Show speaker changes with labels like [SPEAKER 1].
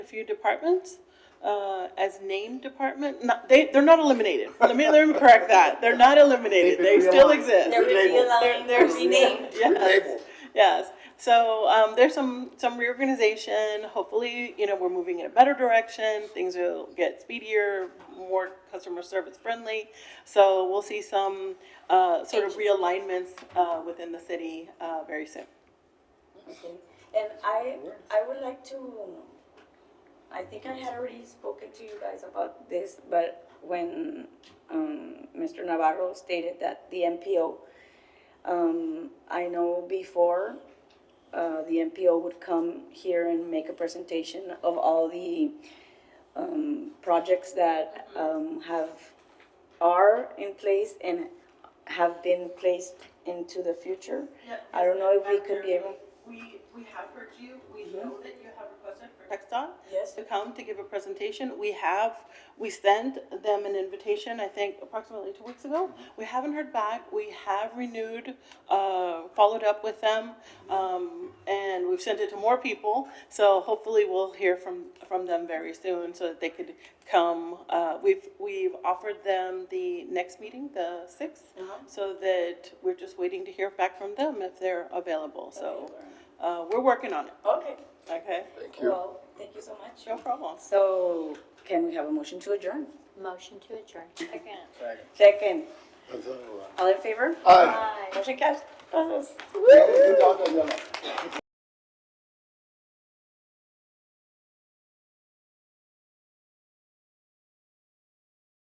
[SPEAKER 1] a few departments uh, as named department. Not, they, they're not eliminated. Let me, let me correct that. They're not eliminated.
[SPEAKER 2] They've
[SPEAKER 1] They
[SPEAKER 2] been
[SPEAKER 1] still
[SPEAKER 2] realigned.
[SPEAKER 1] exist.
[SPEAKER 3] They're
[SPEAKER 1] They're-
[SPEAKER 3] realigned,
[SPEAKER 1] they're-
[SPEAKER 3] renamed.
[SPEAKER 1] Yes.
[SPEAKER 2] Relabeled.
[SPEAKER 1] Yes. So um, there's some some reorganization. Hopefully, you know, we're moving in a better direction. Things will get speedier, more customer service friendly. So we'll see some uh, sort of realignments uh, within the city uh, very soon.
[SPEAKER 3] Okay, and I, I would like to, I think I had already spoken to you guys about this, but when, um, Mr. Navarro stated that the MPO, um, I know before, uh, the MPO would come here and make a presentation of all the, um, projects that, um, have, are in place and have been placed into the future. I don't know if we could be able. Mm-hmm.
[SPEAKER 1] We, we have heard you, we know that you have requested for Texon
[SPEAKER 3] Yes.
[SPEAKER 1] to come to give a presentation. We have, we sent them an invitation, I think approximately two weeks ago. We haven't heard back, we have renewed, uh, followed up with them, um, and we've sent it to more people. So hopefully we'll hear from, from them very soon so that they could come. Uh, we've, we've offered them the next meeting, the sixth, so that we're just waiting to hear back from them if they're available. So, uh, we're working on it,
[SPEAKER 3] Okay.
[SPEAKER 1] okay?
[SPEAKER 2] Thank you.
[SPEAKER 3] Well, thank you so much.
[SPEAKER 1] No problem.
[SPEAKER 3] So can we have a motion to adjourn?
[SPEAKER 4] Motion to adjourn. Second.
[SPEAKER 3] Second.
[SPEAKER 2] That's all right.
[SPEAKER 3] All in favor?
[SPEAKER 2] Aye.
[SPEAKER 3] Motion carries.
[SPEAKER 2] Good job, Daniela.